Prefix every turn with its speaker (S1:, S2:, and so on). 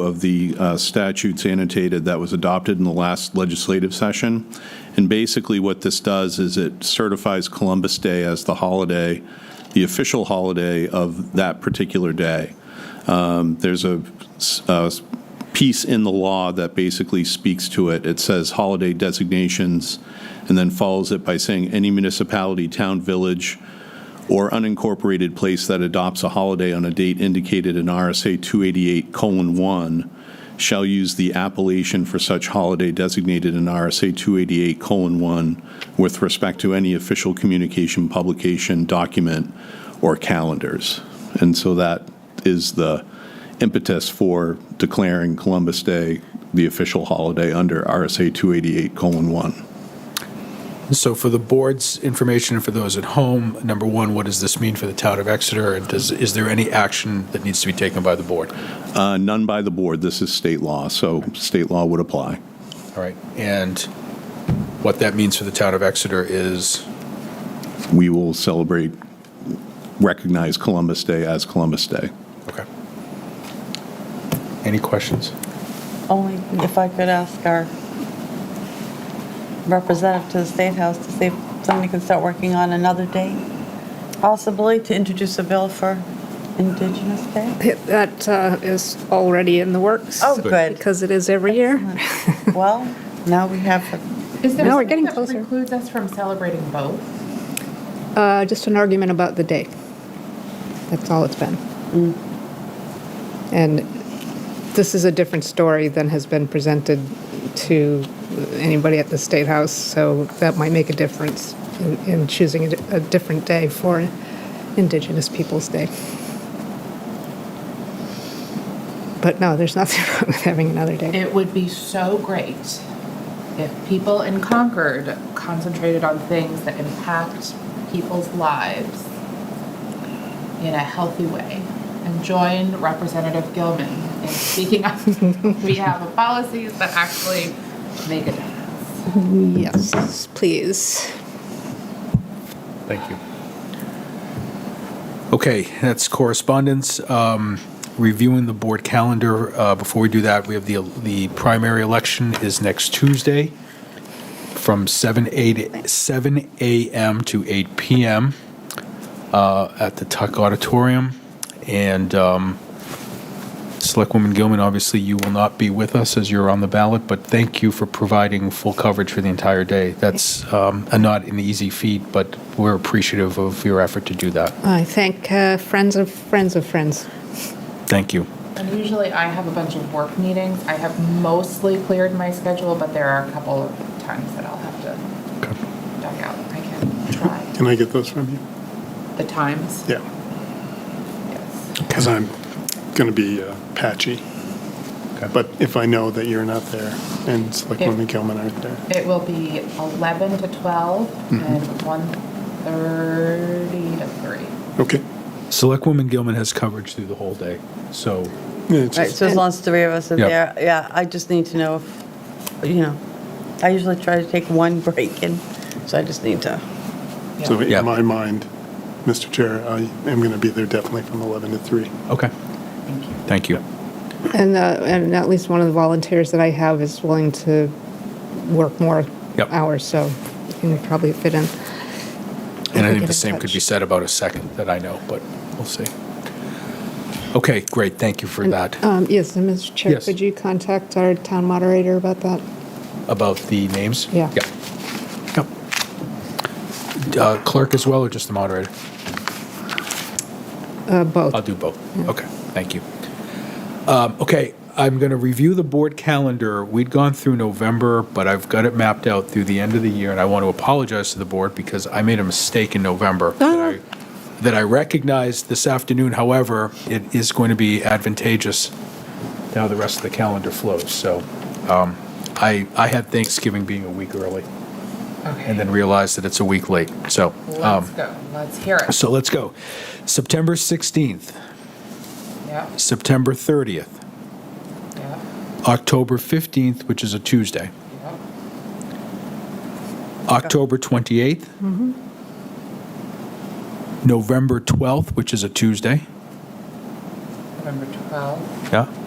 S1: of the uh, statutes annotated that was adopted in the last legislative session. And basically, what this does is it certifies Columbus Day as the holiday, the official holiday of that particular day. Um, There's a s- a s- piece in the law that basically speaks to it. It says holiday designations, and then follows it by saying any municipality, town, village, or unincorporated place that adopts a holiday on a date indicated in RSA 288:1 shall use the appellation for such holiday designated in RSA 288:1 with respect to any official communication, publication, document, or calendars. And so that is the impetus for declaring Columbus Day the official holiday under RSA 288:1.
S2: So for the board's information and for those at home, number one, what does this mean for the town of Exeter? And does, is there any action that needs to be taken by the board?
S1: Uh, None by the board. This is state law, so state law would apply.
S2: All right, and what that means for the town of Exeter is,
S1: we will celebrate, recognize Columbus Day as Columbus Day.
S2: okay. Any questions?
S3: Only if I could ask our representative to the State House to see if somebody could start working on another date, possibly to introduce a bill for Indigenous Day.
S4: That uh, is already in the works.
S3: Oh, good.
S4: Because it is every year.
S3: Well, now we have,
S5: Is there
S4: No, we're getting
S5: something that
S4: closer.
S5: precludes us from celebrating both?
S4: Uh, Just an argument about the date. That's all it's been.
S3: Mm.
S4: And this is a different story than has been presented to anybody at the State House, so that might make a difference in- in choosing a di- a different day for Indigenous Peoples' Day. But no, there's nothing wrong with having another day.
S5: It would be so great if people in Concord concentrated on things that impact people's lives in a healthy way and joined Representative Gilman in speaking up on behalf of policies that actually make a difference.
S4: Yes, please.
S2: Thank you. Okay, that's correspondence. Um, Reviewing the board calendar, uh, before we do that, we have the, the primary election is next Tuesday from 7, 8, 7 a.m. to 8 p.m. uh, at the Tuck Auditorium. And um, Selectwoman Gilman, obviously you will not be with us as you're on the ballot, but thank you for providing full coverage for the entire day. That's um, a not an easy feat, but we're appreciative of your effort to do that.
S4: I thank uh, friends of friends of friends.
S2: Thank you.
S5: And usually I have a bunch of work meetings. I have mostly cleared my schedule, but there are a couple of times that I'll have to duck out. I can try.
S6: Can I get those from you?
S5: The times?
S6: Yeah,
S5: Yes.
S6: because I'm going to be uh, patchy.
S2: Okay.
S6: But if I know that you're not there and Selectwoman
S5: Yeah.
S6: Gilman aren't there,
S5: It will be 11 to
S2: Mm-hmm.
S5: 12 and 1:30 to 3.
S6: okay.
S2: Selectwoman Gilman has coverage through the whole day, so
S6: Yeah, it's
S3: right,
S6: just-
S3: so as long as three of us are
S2: Yeah.
S3: there, yeah, I just need to know if, you know, I usually try to take one break and, so I just need to,
S6: So
S2: Yeah.
S6: in my mind, Mr. Chair, I am going to be there definitely from 11 to 3.
S2: okay. Thank you.
S4: And, uh, and at least one of the volunteers that I have is willing to work more
S2: Yep.
S4: hours, so you can probably fit in.
S2: And I
S4: Get
S2: think the
S4: in
S2: same could be
S4: touch.
S2: said about a second that I know, but we'll see. Okay, great. Thank you for that.
S4: Um, yes, and Mr. Chair,
S2: Yes.
S4: could you contact our town moderator about that?
S2: About the names?
S4: Yeah.
S2: Yeah. Yep. Uh, Clerk as well, or just the moderator?
S4: Uh, both.
S2: I'll do both. Okay, thank you. Um, Okay, I'm going to review the board calendar. We'd gone through November, but I've got it mapped out through the end of the year, and I want to apologize to the board because I made a mistake in November that I- that I recognized this afternoon. However, it is going to be advantageous to how the rest of the calendar flows. So um, I I had Thanksgiving being a week early and then realized that it's a week late, so. um,
S5: Let's go. Let's hear it.
S2: So let's go. September 16th,
S5: Yeah,
S2: September 30th,
S5: yeah,
S2: October 15th, which is a Tuesday,
S5: yeah.
S2: October 28th, November 12th, which is a Tuesday,
S5: November 12.
S2: yeah,